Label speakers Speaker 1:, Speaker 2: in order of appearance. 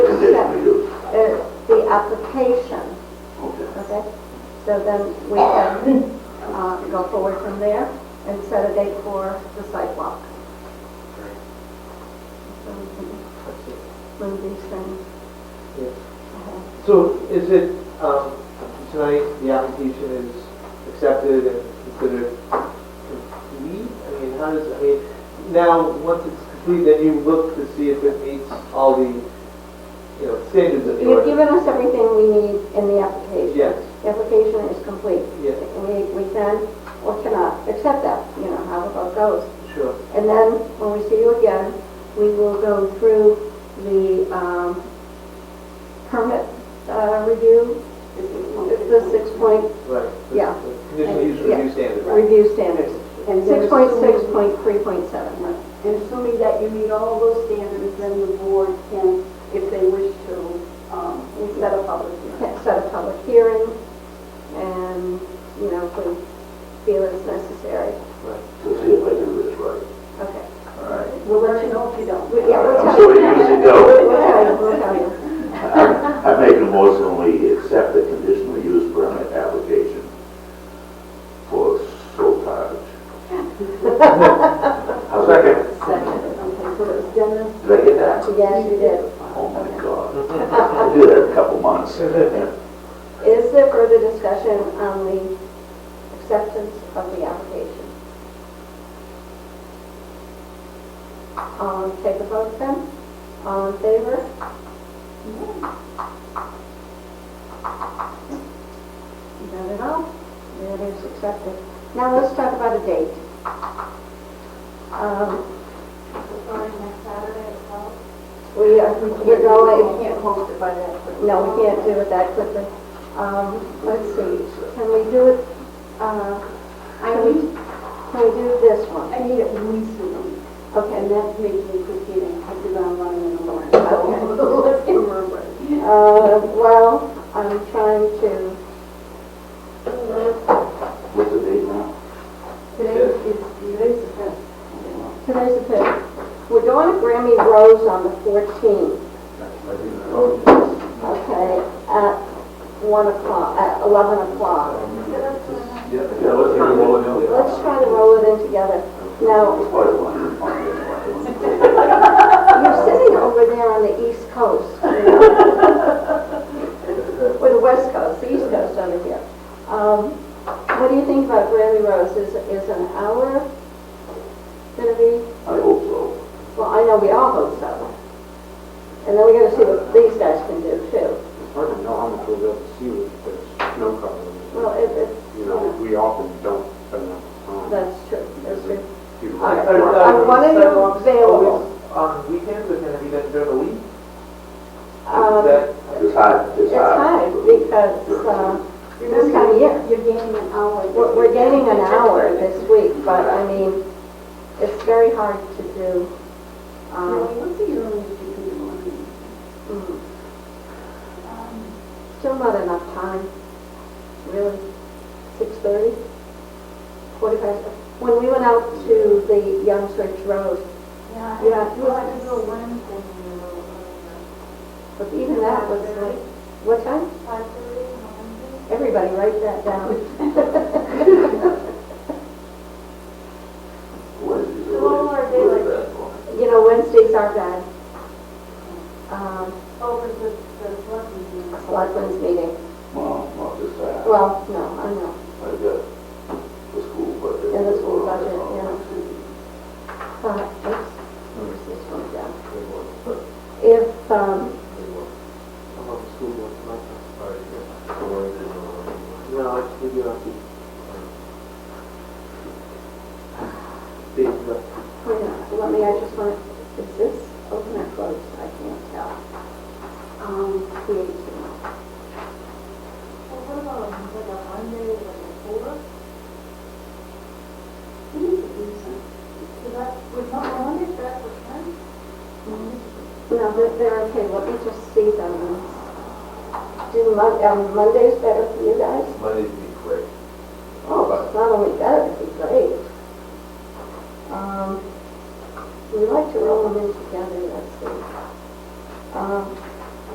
Speaker 1: Uh, application,
Speaker 2: Okay.
Speaker 1: okay? So then we can uh, go forward from there and set a date for the sidewalk. So we can move these things. Uh-huh.
Speaker 3: So is it, um, tonight, the application is accepted and considered complete? I mean, how does, I mean, now, once it's complete, then you look to see if it meets all the, you know, standards of the
Speaker 1: You've
Speaker 3: order?
Speaker 1: given us everything we need in the application.
Speaker 3: Yes,
Speaker 1: The application is complete.
Speaker 3: yes,
Speaker 1: We, we can or cannot accept that, you know, how the vote goes.
Speaker 3: sure,
Speaker 1: And then, when we see you again, we will go through the um, permit uh, review, the six point
Speaker 3: right. the-
Speaker 1: Yeah.
Speaker 3: the Conditional use
Speaker 1: Yeah.
Speaker 3: review standard,
Speaker 1: review standards,
Speaker 4: And
Speaker 1: six
Speaker 4: they're
Speaker 1: point six
Speaker 4: assuming-
Speaker 1: point three point seven.
Speaker 4: And assuming that you meet all those standards, then the board can, if they wish to, um, we set a public hearing.
Speaker 1: Set a public hearing, and, you know, if we feel it's necessary,
Speaker 2: So see if I do this right.
Speaker 1: okay.
Speaker 2: All right.
Speaker 4: We'll let you know if you
Speaker 1: We-
Speaker 4: don't.
Speaker 1: Yeah, we'll
Speaker 2: I'm
Speaker 1: tell
Speaker 2: sure
Speaker 1: you.
Speaker 2: you usually don't.
Speaker 1: We'll tell you, we'll tell you.
Speaker 2: I I make a motion we accept the conditional use permit application for Soul Cottage. How's that?
Speaker 4: Second, okay, so it's Dennis.
Speaker 2: Did I get that?
Speaker 1: Yes, you did.
Speaker 2: Oh my God. I do that a couple months.
Speaker 1: Is there further discussion on the acceptance of the application? Um, take a vote then. All in favor? Is that it all? That is accepted. Now let's talk about a date. Um,
Speaker 4: next Saturday as well?
Speaker 1: we are, we're going,
Speaker 4: We can't post it by that quick.
Speaker 1: no, we can't do it that quickly. Um, let's see, can we do it, uh,
Speaker 4: I need,
Speaker 1: Can we do this one?
Speaker 4: I need at least a week,
Speaker 1: Okay,
Speaker 4: and that's making proceeding, because I'm running in the morning. So let's get moving.
Speaker 1: uh, well, I'm trying to,
Speaker 2: What's the date now?
Speaker 4: Today is, today's the fifth.
Speaker 1: today's the fifth. We're going to Grammy Rose on the fourteenth, okay, at one o'clock, at eleven o'clock.
Speaker 2: Yeah, let's turn it over.
Speaker 1: Let's try to roll it in together. Now,
Speaker 2: Why do I-
Speaker 1: you're sitting over there on the east coast. you know? Or the west coast, the east coast over here. Um, what do you think about Grammy Rose? Is, is an hour gonna be?
Speaker 2: I hope so.
Speaker 1: Well, I know we all hope so. And then we gotta see what these guys can do too.
Speaker 5: It's hard to know how much we'll be able to see with the snow cover.
Speaker 1: Well, it, it's,
Speaker 5: You know, we often don't spend enough time.
Speaker 1: that's true, that's true.
Speaker 5: People-
Speaker 1: All right.
Speaker 3: Are, uh,
Speaker 1: I'm wondering if
Speaker 3: sidewalks
Speaker 1: available.
Speaker 3: always On weekends, or can it be done during the week? Is
Speaker 1: Um,
Speaker 3: that-
Speaker 2: It's hot, it's
Speaker 1: It's
Speaker 2: hot.
Speaker 1: hard because, uh, this time of year,
Speaker 4: You're gaining an hour.
Speaker 1: we're, we're getting an hour this week, but I mean, it's very hard to do.
Speaker 4: No,
Speaker 1: Um,
Speaker 4: what's the earliest you can do one?
Speaker 1: mm. Still not enough time, really. Six thirty? Forty past, when we went out to the Young Church Road,
Speaker 6: Yeah, I-
Speaker 1: Yeah.
Speaker 6: well, I could do a Wednesday, maybe a little earlier.
Speaker 1: but even that was like, what time?
Speaker 6: Five thirty on Wednesday?
Speaker 1: Everybody write that down.
Speaker 2: Wednesday's
Speaker 6: The longer
Speaker 2: always-
Speaker 6: they
Speaker 2: always
Speaker 6: like-
Speaker 2: bad for me.
Speaker 1: You know, Wednesdays are bad. Um,
Speaker 6: Over oh, the, the selectmen's meeting.
Speaker 1: selectmen's meeting,
Speaker 2: Well, not just that.
Speaker 1: well, no, I know.
Speaker 2: I got the school budget.
Speaker 1: And the school budget, Uh, oops, where's this one down? If, um,
Speaker 3: I'm on the school board, I'm not- No, actually, we don't. Big, uh,
Speaker 1: wait a minute, let me, I just want, is this open or closed? I can't tell. Um, create two.
Speaker 6: Well, what about, like, a Monday, like, a four? Is that, would not Monday, that's what time?
Speaker 1: No, they're, they're okay, let me just see them. Do Mon, um, Monday's better for you guys? Oh,
Speaker 7: Monday's
Speaker 1: Um, Um,